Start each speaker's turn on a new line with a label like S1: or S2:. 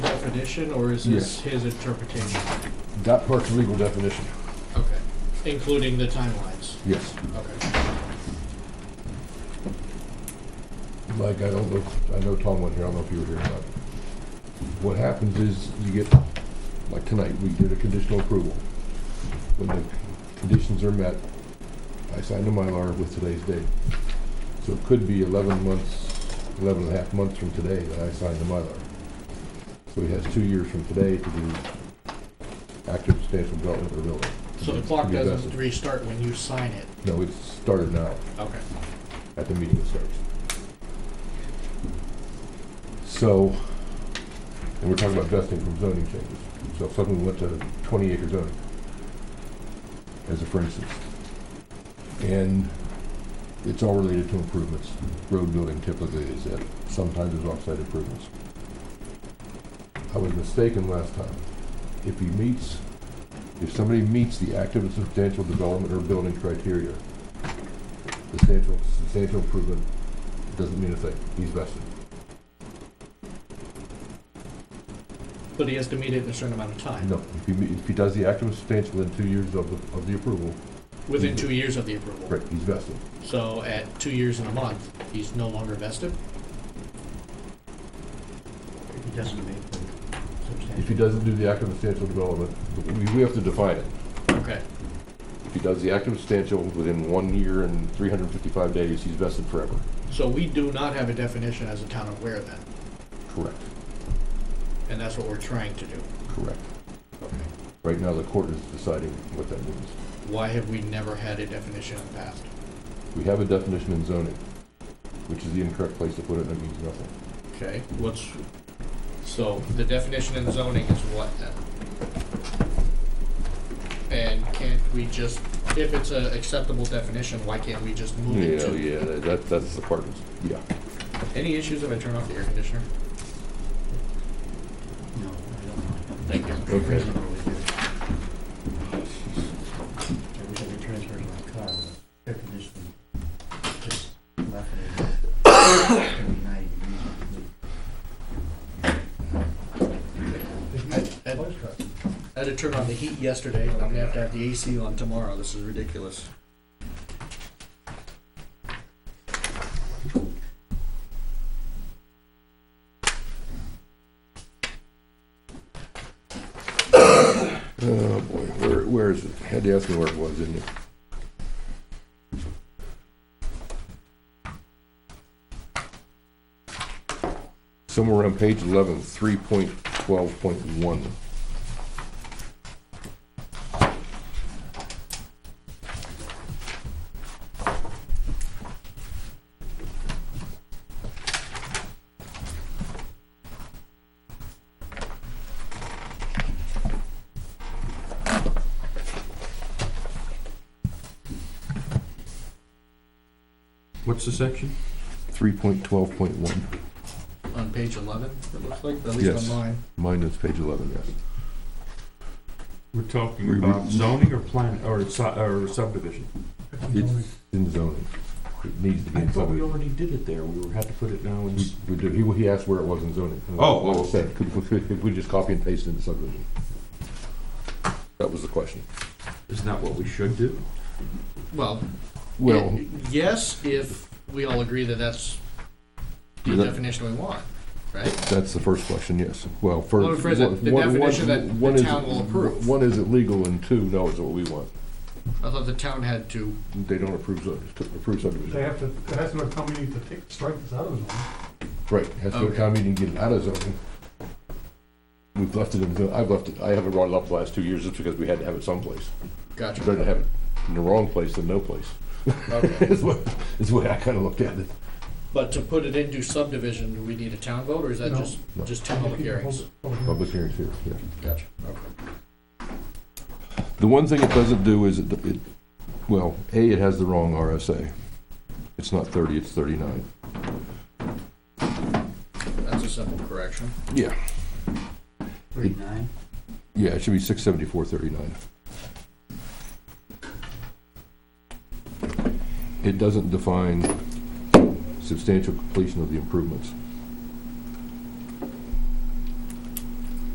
S1: definition, or is this his interpretation?
S2: That part's legal definition,
S1: Okay. Including the timelines.
S2: yes.
S1: Okay.
S2: Like, I don't know, I know Tom wasn't here, I don't know if you were here or not. What happens is you get, like tonight, we did a conditional approval. When the conditions are met, I signed a Mylar with today's date. So it could be eleven months, eleven and a half months from today that I signed the Mylar. So he has two years from today to do active substantial development of the building.
S1: So the clock
S2: To be
S1: doesn't
S2: vested.
S1: restart when you sign it.
S2: No, it's started now,
S1: Okay.
S2: at the meeting it starts. So, and we're talking about vesting from zoning changes. So if suddenly we went to twenty acre zoning, as a for instance. And it's all related to improvements. Road building typically is it, sometimes it's offsite improvements. I was mistaken last time. If he meets, if somebody meets the active and substantial development or building criteria, substantial, substantial improvement doesn't mean a thing. He's vested.
S1: But he has to meet it in a certain amount of time.
S2: No, if he, if he does the active and substantial within two years of the, of the approval,
S1: Within two years of the approval.
S2: Mm-hmm. right, he's vested.
S1: So at two years and a month, he's no longer vested?
S3: If he doesn't make the
S2: If
S3: substantial.
S2: he doesn't do the active and substantial development, we, we have to define it.
S1: Okay.
S2: If he does the active and substantial within one year and three hundred and fifty-five days, he's vested forever.
S1: So we do not have a definition as a town of Ware then,
S2: Correct.
S1: and that's what we're trying to do.
S2: Correct.
S1: Okay.
S2: Right now, the court is deciding what that means.
S1: Why have we never had a definition in the past?
S2: We have a definition in zoning, which is the incorrect place to put it, and it means nothing.
S1: Okay, what's, so the definition in zoning is what then? And can't we just, if it's an acceptable definition, why can't we just move it to?
S2: yeah, that, that's the part, yeah.
S1: Any issues if I turn off the air conditioner?
S3: No, I don't know.
S1: Thank you.
S3: Pretty
S2: Okay.
S3: reasonable with it. Every time I transfer to my car, the air conditioning just left it. Every night,
S1: I I- I had to turn on the heat yesterday, and I'm gonna have to have the AC on tomorrow, this is ridiculous.
S2: Oh boy, where, where is it? Had to ask me where it was, didn't you? Somewhere on page eleven, three point twelve point one.
S4: What's the section?
S2: Three point twelve point one.
S1: On page eleven, it looks like, at least
S2: Yes.
S1: on mine.
S2: Mine is page eleven, yes.
S4: We're talking
S2: We- we-
S4: about zoning or plan, or si- or subdivision?
S2: It's in zoning. It needs to be
S4: I
S2: in
S4: thought we
S2: zoning.
S4: already did it there, we were- had to put it now in.
S2: We-
S4: s-
S2: we do- He, he asked where it was in zoning.
S4: Oh,
S2: Well,
S4: oh.
S2: said, could, could- could we just copy and paste it into subdivision? That was the question.
S4: Isn't that what we should do?
S1: Well,
S2: Well.
S1: y- yes, if we all agree that that's the
S2: That-
S1: definition we want, right?
S2: That's the first question, yes. Well, first.
S1: Well, first, the definition that the town will approve.
S2: One, is it legal, and two, no, is it what we want.
S1: I thought the town had to,
S2: They don't approve, sub- to approve
S5: They
S2: subdivision.
S5: have to, it has to go to town meeting to take, strike this out of the zone.
S2: Right, has to go to town meeting, get it out of zoning. We've left it in, zo- I've left it, I haven't brought it up the last two years, just because we had to have it someplace. It's Better to
S1: gotcha,
S2: have it in the wrong place than no place,
S1: okay.
S2: is what, is the way I kinda looked at it.
S1: But to put it into subdivision, do we need a town vote, or is that
S5: No.
S1: just,
S2: No.
S1: just two public hearings?
S2: Public hearings here, yeah.
S1: Gotcha, okay.
S2: The one thing it doesn't do is, it, it- well, A, it has the wrong RSA. It's not thirty, it's thirty-nine.
S1: That's a simple correction.
S2: Yeah.
S3: Thirty-nine?
S2: Yeah, it should be six seventy-four thirty-nine. It doesn't define substantial completion of the improvements.